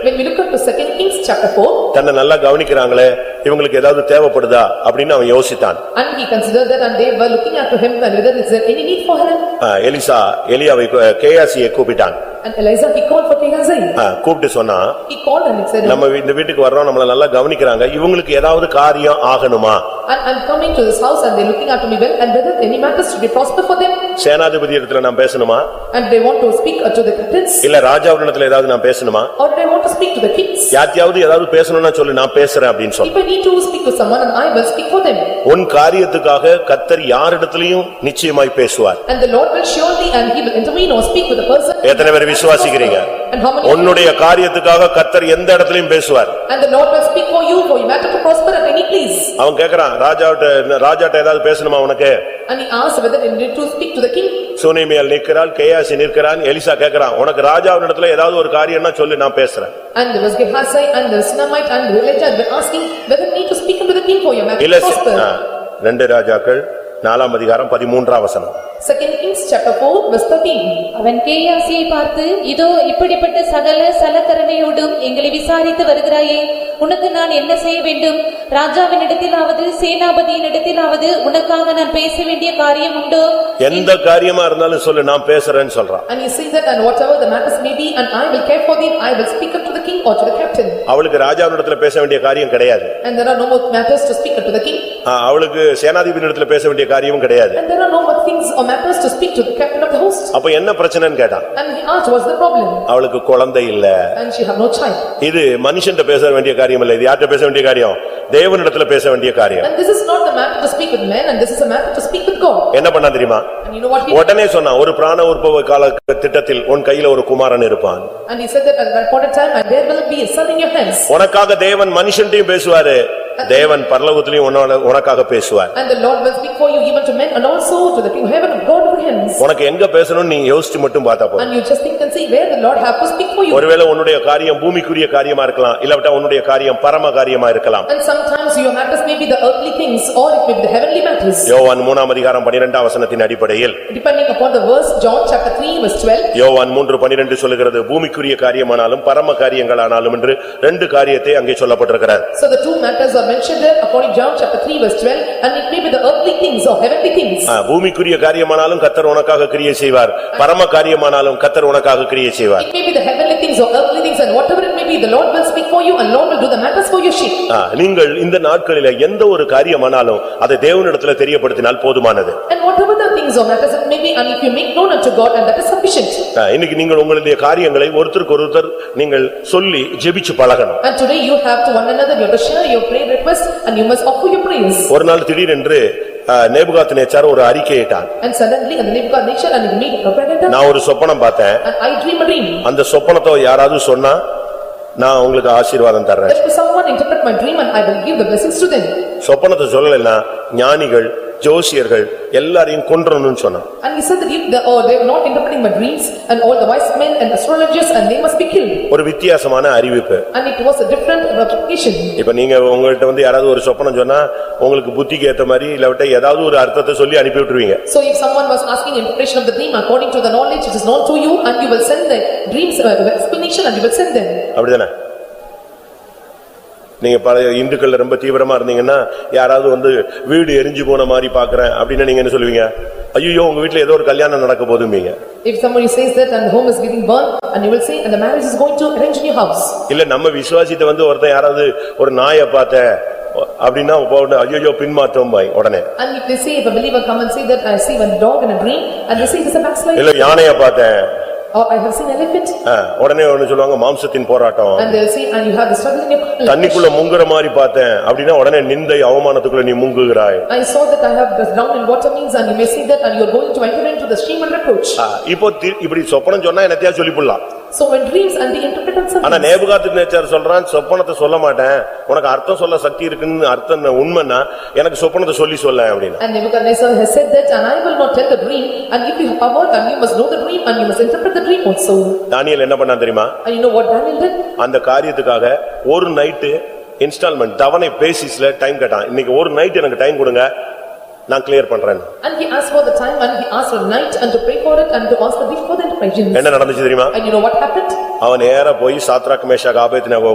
When we look up to second Kings chapter four, தன்னை நல்லா கவனிக்கிறாங்களே இவங்களுக்கு ஏதாவது தேவைப்படுதா அப்படின்னு அவன் யோசித்தான் and he considered that and they were looking after him and whether is there any need for him. ஆ, எலிசா எலியாவை கேயாசியை கூப்பிட்டான் And Eliza, he called for Gehazi. ஆ, கூப்பிட்டு சொன்னா He called and he said, நம்ம வீ- இந்த வீட்டுக்கு வர்றோம் நம்மள நல்லா கவனிக்கிறாங்க இவங்களுக்கு ஏதாவது காரியம் ஆகணுமா "I- I'm coming to this house and they're looking after me well and whether any matters should be prosper for them. சேனாதிபதி இடத்துல நான் பேசணுமா And they want to speak to the captains இல்ல ராஜாவிடத்துல ஏதாவது நான் பேசணுமா or they want to speak to the kings. யாத்தியாவது ஏதாவது பேசணும்னா சொல்லு நான் பேசுறேன் அப்படின்னு சொன்னான் If I need to speak to someone and I will speak for them. உன் காரியத்துக்காக கத்தர் யாரிடத்திலையும் நிச்சயமாய் பேசுவார் And the Lord will surely and he will intervene or speak with the person. எத்தனை பேர் விசுவாசிக்கிறீங்க? And how many? உன்னுடைய காரியத்துக்காக கத்தர் எந்த இடத்திலையும் பேசுவார் And the Lord will speak for you for your matter to prosper at any place. அவன் கேக்குறான் ராஜாட்ட ராஜாட்ட ஏதாவது பேசணுமா உனக்கு And he asked whether they need to speak to the king. சுனிமியல் நிற்கிறாள் கேயாசி நிற்கிறான் எலிசா கேக்குறான் உனக்கு ராஜாவினிடத்துல ஏதாவது ஒரு காரியம்னா சொல்லு நான் பேசுறேன் And there was Gehazi and the Sinamite and the Elijah were asking whether they need to speak unto the king for your matter இல்ல to சி- ஆ, prosper. ரெண்டு ராஜாக்கள் நாலாம் அதிகாரம் பதிமூன்றாம் வசனம் Second Kings chapter four verse thirteen. அவன் கேயாசியை பார்த்து இதோ இப்படிப்பட்ட சகல சலக்கரணையோடும் எங்களை விசாரித்து வருகிறாயே உனக்கு நான் என்ன செய்ய வேண்டும் ராஜாவினிடத்திலாவது சேனாபதியினிடத்திலாவது உனக்காக நான் பேச வேண்டிய காரியம் உண்டோ எந்த காரியமா இருந்தாலும் சொல்லு நான் பேசுறேன்னு சொல்றான் And he says that and whatever the matters may be and I will care for thee, I will speak unto the king or to the captain. அவளுக்கு ராஜாவினிடத்துல பேச வேண்டிய காரியம் கிடையாது And there are no more matters to speak unto the king. ஆ, அவளுக்கு சேனாதிபதியிடத்துல பேச வேண்டிய காரியமும் கிடையாது And there are no more things or matters to speak to the captain of the host. அப்ப என்ன பிரச்சனைன்னு கேட்டான் And he asked what's the problem? அவளுக்கு குழந்தை இல்ல And she had no child. இது மனுஷன்ட்ட பேச வேண்டிய காரியம் இல்ல இது யார்கிட்ட பேச வேண்டிய காரியம் தேவனிடத்துல பேச வேண்டிய காரியம் And this is not the matter to speak with men and this is a matter to speak with God. என்ன பண்ணா தெரியுமா And you know what he, உடனே சொன்னா ஒரு பிராண உற்பவ கால திட்டத்தில் உன் கையில ஒரு குமாரன் இருப்பான் and he said that at that point of time and there will be a son in your hands. உனக்காக தேவன் மனுஷன்டையும் பேசுவாரு தேவன் பரலோகத்திலையும் உன்னோட உனக்காக பேசுவார் And the Lord will speak for you even to men and also to the people heaven of God over hands. உனக்கு எங்க பேசணும்னு நீ யோசிச்சு மட்டும் பார்த்தா போதும் And you just think and see where the Lord have to speak for you. ஒருவேளை உன்னுடைய காரியம் பூமிக்குரிய காரியமா இருக்கலாம் இல்லாவிட்டா உன்னுடைய காரியம் பரம காரியமா இருக்கலாம் And sometimes your matters may be the earthly things or it may be the heavenly matters. யோவான் மூணாம் அதிகாரம் பனிரெண்டாம் வசனத்தின் அடிப்படையில் Depending upon the verse, John chapter three verse twelve. யோவான் மூன்று பனிரெண்டு சொல்லுகிறது பூமிக்குரிய காரியமானாலும் பரம காரியங்களானாலும் என்று ரெண்டு காரியத்தை அங்கே சொல்லப்பட்டிருக்கிறார் So the two matters are mentioned there according to John chapter three verse twelve and it may be the earthly things or heavenly things. ஆ, பூமிக்குரிய காரியமானாலும் கத்தர் உனக்காக கிரியை செய்வார் பரம காரியமானாலும் கத்தர் உனக்காக கிரியை செய்வார் It may be the heavenly things or earthly things and whatever it may be, the Lord will speak for you and Lord will do the matters for your sheep. ஆ, நீங்கள் இந்த நாட்களில எந்த ஒரு காரியமானாலும் அதை தேவனிடத்துல தெரியப்படுத்தினால் போதுமானது And whatever the things or matters it may be, and if you make known unto God and that is sufficient. ஆ, இன்னைக்கு நீங்கள் உங்களுடைய காரியங்களை ஒருத்தருக்கு ஒருத்தர் நீங்கள் சொல்லி ஜெபிச்சு பழகணும் And today you have to one another, you have to share your prayer requests and you must offer your prayers. ஒரு நாள் திடீரென்று நேபுகாத் நேச்சார் ஒரு அறிக்கையிட்டான் And suddenly in the name of God nature and you meet a propaganda நான் ஒரு சொப்பனம் பார்த்தேன் and I dream a dream. அந்த சொப்பனத்தை யாராவது சொன்னா நான் உங்களுக்கு ஆசீர்வாதம் தர்றேன் Let someone interpret my dream and I will give the blessings to them. சொப்பனத்தை சொல்லலைன்னா ஞானிகள் ஜோசியர்கள் எல்லாரையும் கொன்றணும்னு சொன்னான் And he said that if the, or they are not interpreting my dreams and all the wise men and astrologers and they must be killed. ஒரு வித்தியாசமான அறிவிப்பு And it was a different application. இப்ப நீங்க உங்கள்ட்ட வந்து யாராவது ஒரு சொப்பனம் சொன்னா உங்களுக்கு புத்திக்கு ஏத்த மாதிரி இல்லாவிட்டா ஏதாவது ஒரு அர்த்தத்தை சொல்லி அனுப்பி விட்டுருவீங்க So if someone was asking interpretation of the dream according to the knowledge which is known to you and you will send the dreams uh, the explanation and you will send them. அப்படிதானே நீங்க பல இந்துக்கள்ல ரொம்ப தீவிரமா இருந்தீங்கன்னா யாராவது வந்து வீடு எரிஞ்சு போன மாதிரி பாக்குறேன் அப்படின்னு நீங்க என்ன சொல்லுவீங்க ஐயோ உங்க வீட்ல ஏதோ ஒரு கல்யாணம் நடக்க போதும்பீங்க If somebody says that and the home is getting burned and you will say and the marriage is going to arrange in your house. இல்ல நம்ம விசுவாசித்த வந்து ஒருத்தன் யாராவது ஒரு நாயை பார்த்த அப்படின்னா ஐயோ பின்மாற்றம் பாய் உடனே And if they say, if a believer come and say that I see one dog in a dream and they say it is a backslide இல்ல யானைய பார்த்தேன் or I have seen elephant ஆ, உடனே ஒண்ணு சொல்லுவாங்க மாம்சத்தின் போராட்டம் and they'll say and you have the struggle in your life. தண்ணிக்குள்ள முங்குற மாதிரி பார்த்தேன் அப்படின்னா உடனே நிந்தை அவமானத்துக்குள்ள நீ முங்குகிறாய் I saw that I have been drowned in water means and you may say that and you are going to enter into the stream and reproach. ஆ, இப்போ தி- இப்படி சொப்பனம் சொன்னா என்னத்தையா சொல்லிப்புடலாம் So when dreams and they interpret on ஆனா something. நேபுகாத்து நேச்சார் சொல்றான் சொப்பனத்தை சொல்ல மாட்டேன் உனக்கு அர்த்தம் சொல்ல சக்தி இருக்குன்னு அர்த்தம் என்ன உண்மைன்னா எனக்கு சொப்பனத்தை சொல்லி சொல்ல அப்படின்னா And Nebuchadnezzar has said that, and I will not tell the dream, and if you have power, and you must know the dream, and you must interpret the dream also. Daniel என்ன பண்ணான் தெரியுமா And you know what Daniel did? அந்த காரியத்துக்காக ஒரு night instalment தவணை பேசிஸ்ல time கேட்டான் இன்னைக்கு ஒரு நைட் எனக்கு டைம் கொடுங்க நான் கிளியர் பண்றேன் And he asked for the time, and he asked for the night, and to pray for it, and to ask the gift for the enterprise. என்ன நடந்துச்சு தெரியுமா And you know what happened? அவன் நேரா போய் Shadrach Meshach Abednego